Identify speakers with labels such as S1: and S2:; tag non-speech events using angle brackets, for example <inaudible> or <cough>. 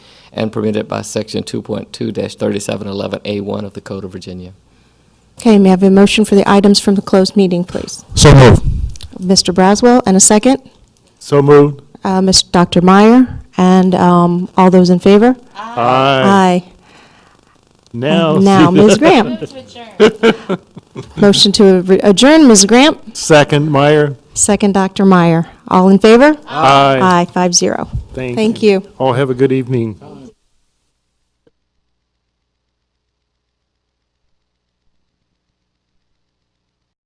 S1: and permitted by Section 2.2-3711A1 of the Code of Virginia.
S2: Okay, may I have a motion for the items from the closed meeting, please?
S3: So moved.
S2: Mr. Braswell, and a second?
S3: So moved.
S2: Uh, Ms. Dr. Meyer, and um, all those in favor?
S3: Aye.
S2: Aye.
S3: Now.
S2: Now, Ms. Graham. <laughs> Motion to re- adjourn, Ms. Graham.
S3: Second, Meyer.
S2: Second, Dr. Meyer. All in favor?
S3: Aye.
S2: Aye, five zero.
S3: Thank
S2: Thank you.
S3: All have a good evening.